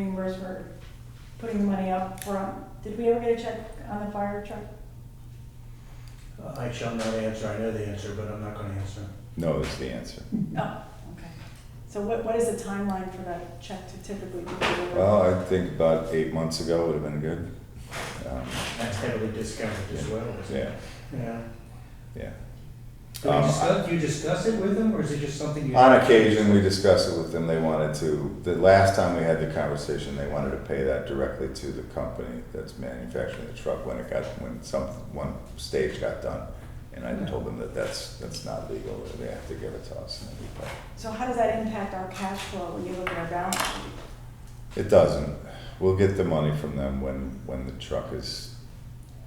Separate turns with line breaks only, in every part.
members were putting money up front. Did we ever get a check on the fire truck?
I shall Uh, not answer, I know the answer, but I'm not gonna answer.
No is the answer.
No, okay. So what, what is the timeline for that check to typically be delivered?
Well, I think about eight months ago would have been good. Um,
That's heavily discounted as well, isn't it?
Yeah,
Yeah.
yeah.
Do you
Um,
discuss, do you discuss it with them, or is it just something you?
On occasion, we discuss it with them, they wanted to, the last time we had the conversation, they wanted to pay that directly to the company that's manufacturing the truck when it got, when some, one stage got done. And I told them that that's, that's not legal, they have to give it to us. and we pay.
So how does that impact our cash flow when you look at our balance sheet?
It doesn't, we'll get the money from them when, when the truck is,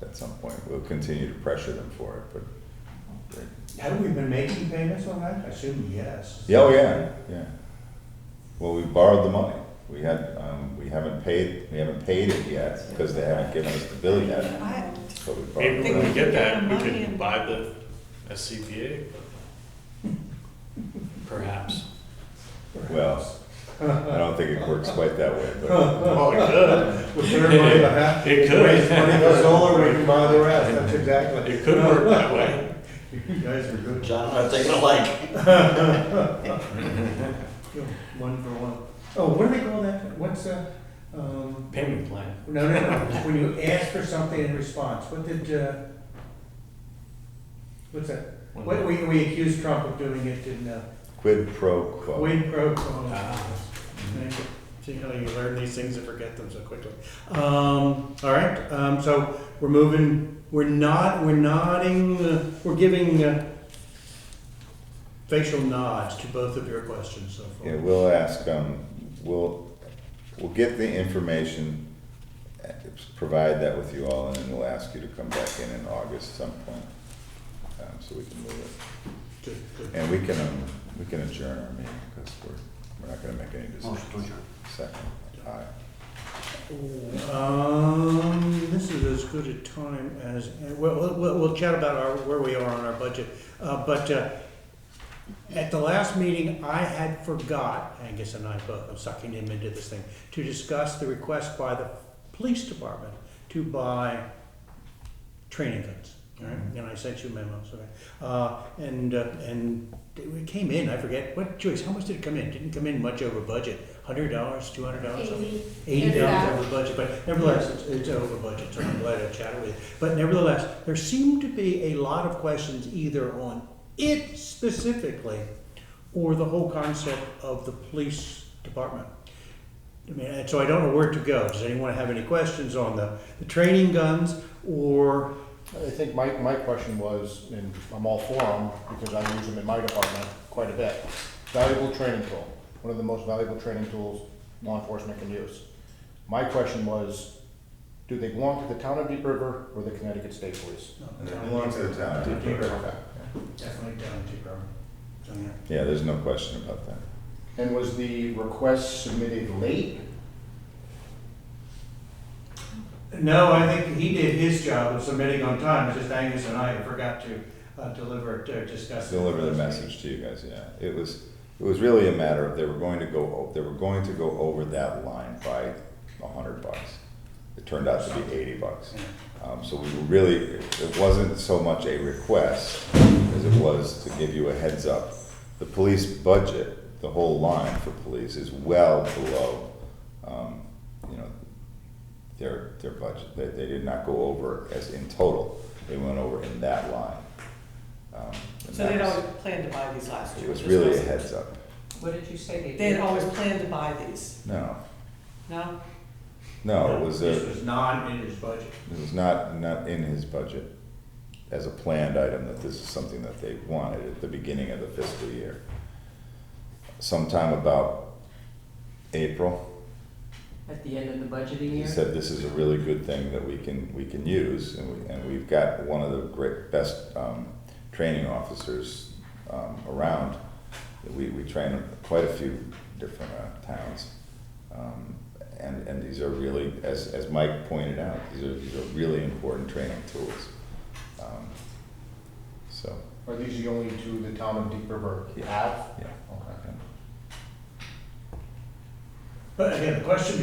at some point, we'll continue to pressure them for it, but.
Have we been making payments on that? I assume yes.
Yeah, oh yeah, yeah. Well, we borrowed the money. We had, um, we haven't paid, we haven't paid it yet because they haven't given us the bill yet.
I-
But we borrowed
Maybe
the
when we
money.
get that, we
Money
can
and-
buy the SCBA. Perhaps.
Well, I don't think it works quite that way, but
Well, it
With their money, the half,
It could.
raise money for solar, we can buy the rest, that's
could,
exactly.
it could work that way.
You guys are good.
John and I think alike.
Yeah, One for one. Oh, what do they call that? What's a, um,
Payment plan.
no, no, no, when you ask for something in response, what did, uh, what's that? What, we, we accused Trump of doing it in, uh,
quid pro quo.
Quid pro quo.
Ah.
Thank you. See how you learn these things and forget them so quickly. Um, all right, um, so we're moving, we're not, we're nodding, uh, we're giving uh, facial nods to both of your questions so far.
Yeah, we'll ask, um, we'll, we'll get the information, uh, provide that with you all, and then we'll ask you to come back in in August some point. Um, so we can move it.
Good, good.
And we can, um, we can adjourn our meeting, because we're, we're not gonna make any decisions.
Motion to adjourn.
Second, aye.
Um, this is as good a time as, we'll, we'll, we'll chat about our, where we are on our budget. Uh, but, uh, at the last meeting, I had forgot, Angus and I both, I'm sucking him into this thing, to discuss the request by the police department to buy training guns. All right, and I sent you memos, okay? Uh, and, uh, and it came in, I forget, what, Joyce, how much did it come in? Didn't come in much over budget, hundred dollars, two hundred dollars?
Eighty.
eighty
Yeah.
dollars over budget, but nevertheless, it's, it's over budget, so I'm glad I chatted with you. But nevertheless, there seem to be a lot of questions either on it specifically or the whole concept of the police department. I mean, and so I don't know where to go. Does anyone have any questions on the, the training guns or,
I think my, my question was, and I'm all for them, because I use them in my department quite a bit. Valuable training tool, one of the most valuable training tools law enforcement can use. My question was, do they belong to the town of Deep River or the Connecticut State Police?
And it belongs to the town.
Okay.
Definitely down to
Yeah, there's no question about that.
And was the request submitted late?
No, I think he did his job of submitting on time, it's just Angus and I forgot to, uh, deliver, to discuss.
Deliver the message to you guys, yeah. It was, it was really a matter of they were going to go, o- they were going to go over that line by a hundred bucks. It turned out to be eighty bucks. Um, so we were really, it it wasn't so much a request as it was to give you a heads up. The police budget, the whole line for police is well below, um, you know, their, their budget. They, they did not go over as in total. They went over in that line. Um, and
So they'd
that was-
always planned to buy these last year.
It was
this
really a
wasn't-
heads up.
What did you say? they
They
did?
had always planned to buy these,
No,
no?
no, it was
This
a,
was not in his budget.
it was not, not in his budget as a planned item that this is something that they wanted at the beginning of the fiscal year. Sometime about April,
At the end of the budgeting
he
year?
said this is a really good thing that we can, we can use and we, and we've got one of the great, best, um, training officers, um, around. We, we train quite a few different, uh, towns. Um, and, and these are really, as, as Mike pointed out, these are, these are really important training tools. Um, So,
Are these the only two the town of Deep River have?
yeah.
Okay.
But again, the question